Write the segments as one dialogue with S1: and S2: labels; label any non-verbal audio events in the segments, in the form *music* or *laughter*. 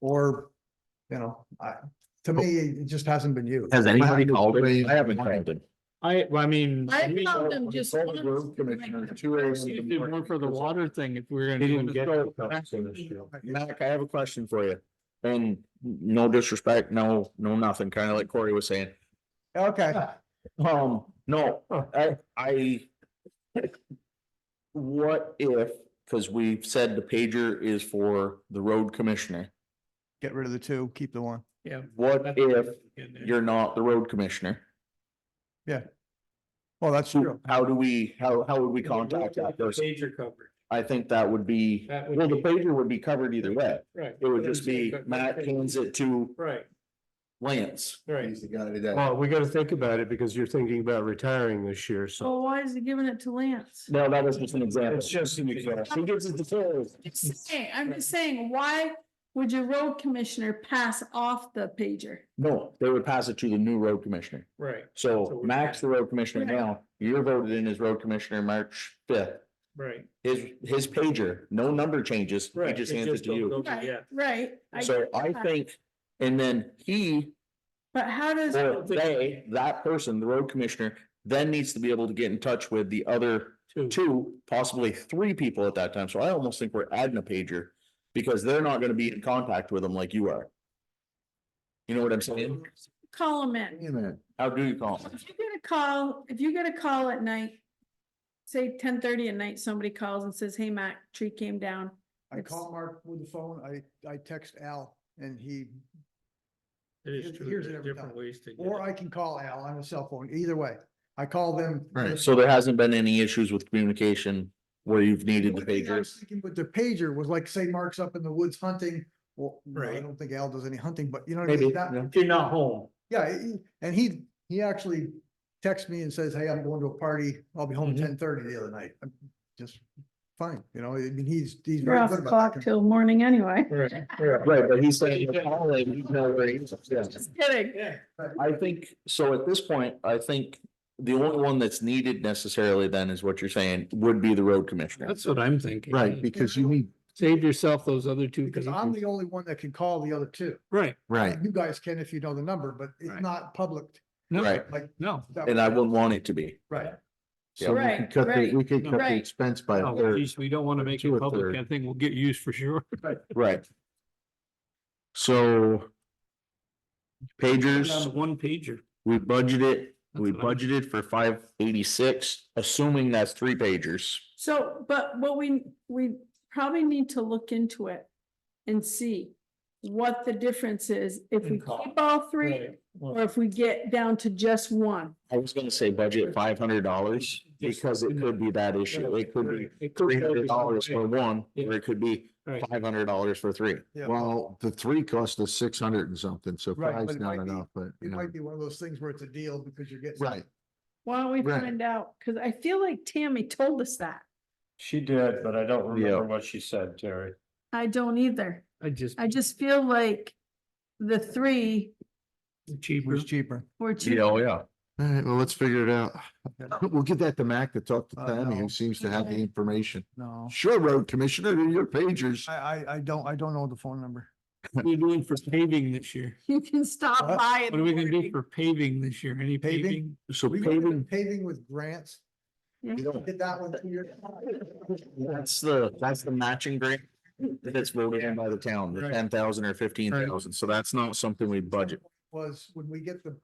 S1: or, you know, I, to me, it just hasn't been used.
S2: Has anybody
S3: haven't
S2: called it?
S3: explained
S2: I haven't
S3: why.
S2: called it.
S4: I, well, I mean.
S5: I
S4: we-
S5: found them just
S3: Call the road
S5: once, like,
S3: commissioner at 2 a.m. in the
S4: we did
S3: morning.
S4: More for the water thing, if we're gonna.
S3: They
S4: do
S3: didn't
S4: it.
S3: get
S4: So,
S2: Mac, I have a question for you. And no disrespect, no, no nothing, kind of like Corey was saying.
S1: Okay,
S2: Um, no, I, I. What if, because we've said the pager is for the road commissioner,
S1: get rid of the two, keep the one.
S2: what if
S4: in there.
S2: you're not the road commissioner?
S1: Well, that's true.
S2: So how do we, how, how would we contact that person?
S4: Pager coverage.
S2: I think that would be,
S4: That would
S2: well, the
S4: be-
S2: pager would be covered either way.
S4: Right.
S2: It would just be Matt hands it to
S4: Right,
S2: Lance.
S4: right.
S3: He's the guy that.
S6: Well, we gotta think about it because you're thinking about retiring this year, so.
S5: So why is he giving it to Lance?
S2: No, that was just an example.
S3: just an
S2: He gives it to Phil.
S5: Just saying, I'm just saying, why would your road commissioner pass off the pager?
S2: No, they would pass it to the new road commissioner.
S4: Right, So
S2: So
S4: we-
S2: Max, the road commissioner now, you're voted in as road commissioner March fifth.
S4: right.
S2: His, his pager, no number changes, he
S4: Right,
S2: just
S4: it
S2: hands it
S4: just
S2: to
S4: don't
S2: you.
S4: go-
S5: Right,
S4: Yeah.
S5: Right. I-
S2: So I think, and then he,
S5: But how does,
S2: or
S4: think-
S2: they, that person, the road commissioner, then needs to be able to get in touch with the other
S4: Two.
S2: two, possibly three people at that time. So I almost think we're adding a pager because they're not gonna be in contact with them like you are. You know what I'm saying?
S5: call him in.
S2: How do you call them?
S5: If you get a call, if you get a call at night, say ten thirty at night, somebody calls and says, hey, Mac, tree came down.
S1: I call Mark with the phone, I, I text Al and he,
S4: It is true,
S1: Here's
S4: there's
S1: it every
S4: different
S1: time.
S4: ways to. get
S1: or
S4: it.
S1: I can call Al on his cell phone, either way. I call them.
S3: Right.
S2: So there hasn't been any issues with communication where you've needed the
S1: One thing I was
S2: pagers?
S1: thinking With the pager was like, say Mark's up in the woods hunting. Well, no, I
S4: Right.
S1: don't think Al does any hunting, but you know, what I
S2: Maybe,
S1: mean? that,
S2: yeah.
S4: If you're not home.
S1: Yeah, he- he- and he, he actually texts me and says, hey, I'm going to a party. I'll be home at ten thirty the other night. I'm just fine, you know, I mean, he's, he's.
S5: You're
S1: very
S5: off
S1: good
S5: the
S1: about
S5: clock
S1: that.
S5: till morning anyway. *laughs*
S4: Right,
S2: Right, but he's saying. "Well, I'll let you know where he is." Yeah.
S5: Just kidding.
S4: Yeah.
S2: I think, so at this point, I think the only one that's needed necessarily then is what you're saying, would be the road commissioner.
S4: That's what I'm thinking.
S3: Right, because you need,
S4: Save yourself those other two.
S1: Because I'm
S4: pages.
S1: the only one that can call the other two.
S4: Right,
S3: right,
S1: You guys can if you know the number, but it's
S4: Right.
S1: not public.
S4: no,
S2: Right.
S1: Like,
S4: no.
S1: that
S2: And I
S1: way.
S2: wouldn't want it to be.
S1: Right.
S3: so we
S5: Right,
S3: could cut, the-
S5: right,
S3: we could cut the
S5: right.
S3: expense by a
S4: No,
S3: third.
S4: geez, We don't want to make
S3: Two
S4: it
S3: or
S4: public.
S3: third.
S4: That thing will get used
S7: *laughs*
S4: for sure.
S2: Right.
S3: So
S4: Put it on the
S2: Pagers,
S4: One pager.
S2: we budgeted, we
S4: That's what I'm-
S2: budgeted for five eighty-six, assuming that's three pagers.
S5: So, but what we, we probably need to look into it and see what the difference is if we
S4: And cost.
S5: keep all three or if we get down to just one.
S2: I was gonna say budget five hundred dollars because it could be that issue. It could be three hundred dollars for one, or it could be
S4: Right.
S2: five hundred dollars for three.
S1: Yeah.
S3: Well, the three cost us six hundred and something, so
S1: Right, but
S3: five's
S1: it
S3: not
S1: might be-
S3: enough, but.
S1: It
S3: yeah.
S1: might be one of those things where it's a deal because you're getting.
S3: Right,
S5: Why don't we
S3: Right.
S5: find out? Cause I feel like Tammy told us that.
S7: She did, but I don't
S2: Yeah.
S7: remember what she said, Terry.
S5: I don't either.
S4: I just.
S5: I just feel like the three
S1: It
S4: Cheaper.
S1: was cheaper.
S5: were cheap.
S2: oh, yeah.
S3: all right, well, let's figure
S2: *laughs*
S3: it out. We'll give that to Mac to talk to
S1: Uh,
S3: Tammy,
S1: no.
S3: who seems to have the
S5: Okay.
S3: information.
S1: No,
S3: Sure, road commissioner, they're your pagers.
S1: I, I, I don't, I don't know the phone number.
S4: What are we doing for paving this year?
S5: *laughs* You can stop
S1: What?
S5: by. in
S4: What are
S5: the
S4: we gonna do
S5: morning.
S4: for paving this year? Any
S1: Paving?
S4: paving?
S3: So
S1: We were paving with grants.
S5: Yeah.
S1: Did that one two years.
S2: That's the, that's the matching grant that's voted in by the town, the
S4: Right.
S2: ten thousand or fifteen thousand. So that's not something we budget.
S1: Was when we get the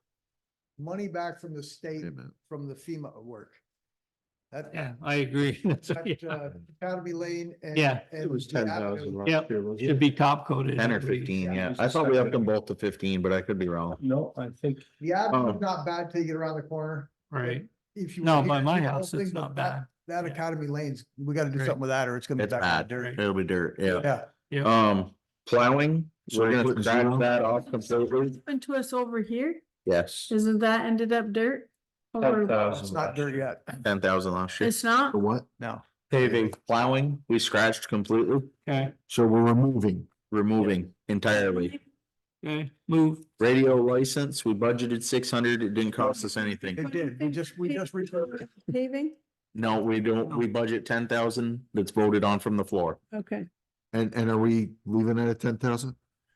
S1: money back from the state, from the FEMA work. That,
S4: Yeah, I agree. *laughs* That's what-
S1: that,
S4: yeah.
S1: uh, Academy Lane and.
S4: Yeah.
S1: and the avenue.
S4: Yep. Should be top coated.
S2: Ten or
S4: I believe.
S2: fifteen, yeah. I thought we upped them both to fifteen, but I could be wrong.
S7: No, I think.
S1: The avenue's
S2: Oh.
S1: not bad till you get around the corner.
S4: Right,
S1: If you.
S4: No,
S1: were
S4: by
S1: here,
S4: my
S1: you know,
S4: house,
S1: things
S4: it's
S1: like
S4: not
S1: that-
S4: bad.
S1: That
S4: Yeah.
S1: Academy Lanes, we gotta do
S4: Right.
S1: something with that or it's gonna be
S2: It's
S1: back
S2: bad.
S1: in the dirt.
S2: It'll be dirt, yeah.
S1: Yeah,
S4: yeah.
S2: Um, plowing,
S3: So
S2: we're
S3: we're
S2: gonna
S3: putting
S2: scratch
S3: zero?
S2: that off completely.
S5: Happened to us over here.
S2: Yes,
S5: Isn't that ended up dirt?
S2: uh,
S5: Or
S1: it's
S7: 10,000
S1: not
S7: left.
S1: dirt yet.
S2: ten thousand last year.
S5: it's not?
S3: The what?
S1: No.
S2: Paving, plowing, we scratched completely,
S4: Okay,
S3: So we're removing.
S2: removing entirely.
S4: okay, move.
S2: Radio license, we budgeted six hundred, it didn't cost us anything.
S1: It did. We just, we just. repurposed it.
S5: Paving?
S2: No, we don't, we budget ten thousand that's voted on from the floor.
S5: Okay.
S3: And, and are we leaving it at ten thousand?